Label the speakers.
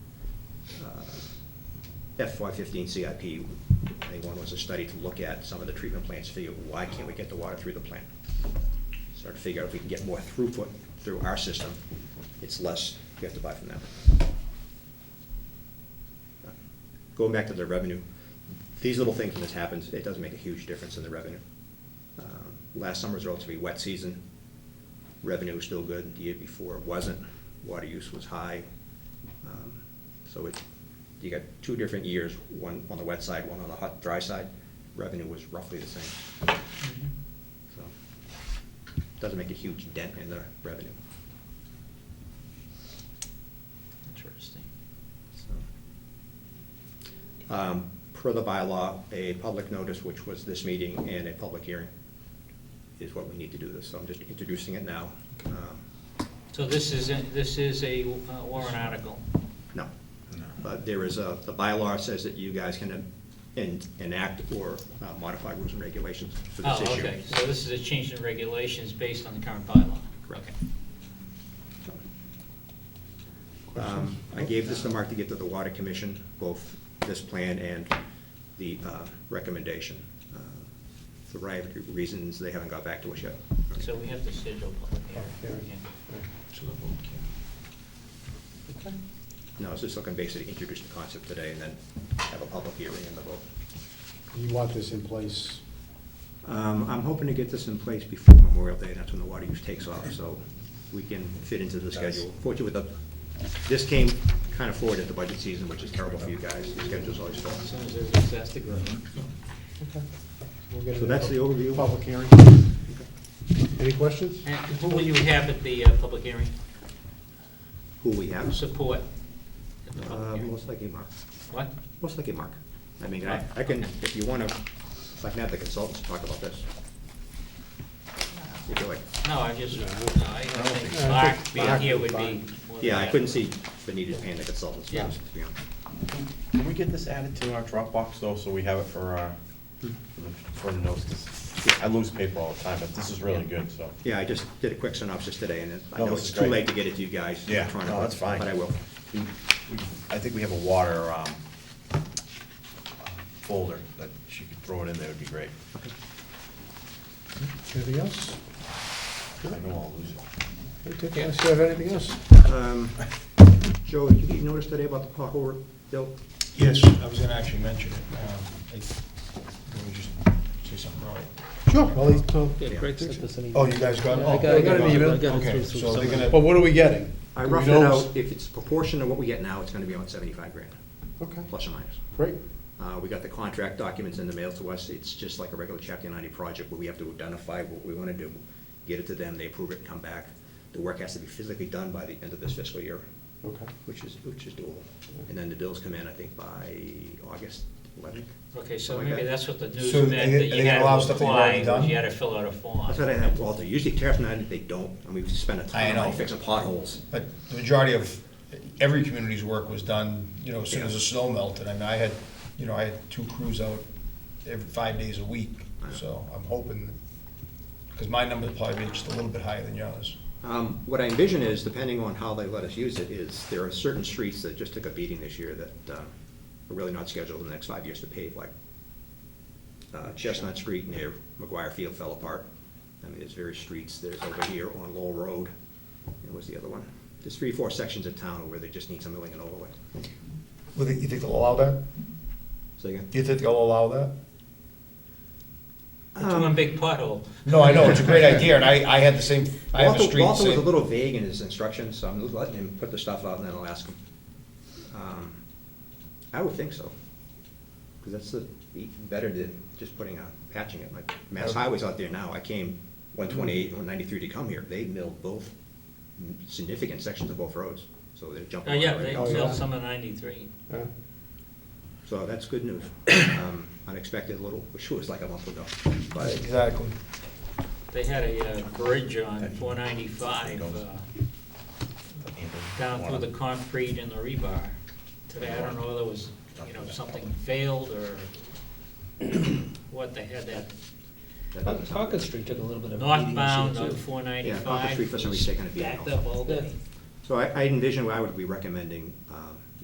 Speaker 1: FY uh, fifteen CIP, I think one was a study to look at some of the treatment plants, figure, why can't we get the water through the plant? Start to figure out if we can get more throughput through our system, it's less we have to buy from them. Going back to the revenue, these little things, when this happens, it does make a huge difference in the revenue. Um, Last summer was a relatively wet season, revenue was still good, the year before it wasn't, water use was high. Um, So it, you got two different years, one on the wet side, one on the hot, dry side, revenue was roughly the same.
Speaker 2: Mm-hmm.
Speaker 1: So, Doesn't make a huge dent in the revenue.
Speaker 2: Interesting.
Speaker 1: So, um, Per the bylaw, a public notice, which was this meeting, and a public hearing is what we need to do this, so I'm just introducing it now. Um,
Speaker 2: So this is, a- this is a uh, warrant article.
Speaker 1: No,
Speaker 3: No.
Speaker 1: but there is a, the bylaw says that you guys can en- enact or uh, modify rules and regulations for this
Speaker 2: Oh,
Speaker 1: issue.
Speaker 2: okay, so this is a change in regulations based on the current bylaw.
Speaker 1: Correct.
Speaker 2: Okay.
Speaker 1: Um, I gave this to Mark to get to the Water Commission, both this plan and the uh, recommendation. Uh, For variety of reasons, they haven't got back to us yet.
Speaker 2: So we have to schedule a public hearing.
Speaker 1: No, I was just looking basically to introduce the concept today and then have a public hearing and the vote.
Speaker 4: You want this in place,
Speaker 1: Um, I'm hoping to get this in place before Memorial Day, that's when the water use takes off, so we can fit into the schedule. Fortunately, with the, this came kind of forward at the budget season, which is terrible for you guys, the schedule's always full.
Speaker 2: As soon as everybody's asked to go.
Speaker 4: we'll get it.
Speaker 1: So
Speaker 4: in
Speaker 1: that's the
Speaker 4: pub-
Speaker 1: overview.
Speaker 4: Public hearing. Any questions?
Speaker 2: And who will you have at the uh, public hearing?
Speaker 1: Who we have?
Speaker 2: Support? at the public
Speaker 1: Uh,
Speaker 2: hearing?
Speaker 1: most likely Mark,
Speaker 2: What?
Speaker 1: most likely Mark. I mean, I, I can, if you wanna, I can have the consultants talk about this. If you like.
Speaker 2: No, I just, no, I think
Speaker 4: think-
Speaker 2: Mark
Speaker 4: Mark
Speaker 2: being here
Speaker 4: would
Speaker 2: would be.
Speaker 4: be
Speaker 2: more than
Speaker 1: Yeah, I
Speaker 2: that.
Speaker 1: couldn't see the need of paying the consultants
Speaker 2: Yeah.
Speaker 1: first, to be honest.
Speaker 3: Can we get this added to our Dropbox though, so we have it for, uh, for the notes? 'Cause I lose paper all the time, but this is really good, so.
Speaker 1: Yeah, I just did a quick synopsis today, and I
Speaker 3: No,
Speaker 1: know
Speaker 3: this
Speaker 1: it's
Speaker 3: is
Speaker 1: too
Speaker 3: great.
Speaker 1: late to get it to you guys.
Speaker 3: Yeah,
Speaker 1: electronically,
Speaker 3: no, that's fine.
Speaker 1: But I will.
Speaker 3: We- we- I think we have a water, um, folder that she could throw it in there, would be great.
Speaker 4: Anything else?
Speaker 3: I know I'll lose it.
Speaker 4: Hey, Dick, unless you have anything else?
Speaker 1: Um, Joe, did you notice today about the pothole bill?
Speaker 5: Yes, I was gonna actually mention it. Um, I- Let me just say something wrong.
Speaker 4: Sure. Well, he's, well,
Speaker 6: Yeah, Greg sent us an email.
Speaker 5: Oh, you guys got it?
Speaker 6: I got- I
Speaker 4: got an email.
Speaker 6: I got it
Speaker 5: Okay, so
Speaker 6: through
Speaker 5: they're
Speaker 6: somebody.
Speaker 5: gonna.
Speaker 4: but what are we getting?
Speaker 1: I
Speaker 4: Do we
Speaker 1: roughed it
Speaker 4: know?
Speaker 1: out, if it's proportion to what we get now, it's gonna be about seventy-five grand,
Speaker 4: Okay,
Speaker 1: plus or minus.
Speaker 4: great.
Speaker 1: Uh, we got the contract documents in the mail to us, it's just like a regular chapter ninety project, where we have to identify what we wanna do, get it to them, they approve it, come back. The work has to be physically done by the end of this fiscal year,
Speaker 4: Okay.
Speaker 1: which is, which is doable. And then the bills come in, I think, by August eleventh.
Speaker 2: Okay, so
Speaker 1: Something like
Speaker 2: maybe
Speaker 1: that.
Speaker 2: that's what the news
Speaker 5: So
Speaker 2: meant, that
Speaker 5: they-
Speaker 2: you
Speaker 5: they
Speaker 2: had
Speaker 5: allow
Speaker 2: to
Speaker 5: stuff that you've already
Speaker 2: apply, was you
Speaker 5: done?
Speaker 2: had to fill out a form.
Speaker 1: That's what I have, Walter, usually tariff night, they don't, and we spend a ton
Speaker 5: I
Speaker 1: of
Speaker 5: know.
Speaker 1: money fixing potholes.
Speaker 5: But the majority of, every community's work was done, you know, as soon as the snow melted. I mean, I had, you know, I had two crews out every, five days a week, so I'm hoping, because my number will probably be just a little bit higher than yours.
Speaker 1: Um, What I envision is, depending on how they let us use it, is there are certain streets that just took a beating this year that um, are really not scheduled in the next five years to pave, like uh, Chestnut Street near McGuire Field fell apart. I mean, there's various streets, there's over here on Lowell Road, and what's the other one? There's three, four sections of town where they just need some milling and overlay.
Speaker 5: Well, you think they'll allow that?
Speaker 1: So again,
Speaker 5: Do you think they'll allow that?
Speaker 2: It's
Speaker 1: Um,
Speaker 2: one big pothole.
Speaker 5: No, I know, it's a great idea, and I, I had the same, I have a
Speaker 1: Walter-
Speaker 5: street.
Speaker 1: Walter was a
Speaker 5: same-
Speaker 1: little vague in his instructions, so I'm letting him put the stuff out and then I'll ask him. Um, I would think so, because that's the, be- better than just putting a, patching it. My Mass Highway's out there now, I came one
Speaker 5: Mm-hmm.
Speaker 1: twenty-eight and one ninety-three to come here, they milled both mm, significant sections of both roads, so they're
Speaker 2: Oh,
Speaker 1: jumping.
Speaker 2: yeah,
Speaker 1: on it right
Speaker 2: they
Speaker 1: now.
Speaker 4: Oh, yeah.
Speaker 2: built some in ninety-three.
Speaker 4: Yeah.
Speaker 1: So that's good news, Um, unexpected little, which was like a month ago, but
Speaker 5: Exactly.
Speaker 2: They had a uh, bridge on four ninety-five, uh, down through the concrete and the rebar. Today, I don't know whether it was, you know, something failed or what, they had that
Speaker 1: that doesn't sound
Speaker 6: Concord Street took a little bit of. beating this year,
Speaker 2: northbound on
Speaker 6: too.
Speaker 2: four
Speaker 1: Yeah, Concord
Speaker 2: ninety-five.
Speaker 1: Street for some reason is taking a beating
Speaker 2: Backed
Speaker 1: also.
Speaker 2: up all day.
Speaker 1: So I I envision I would be recommending um,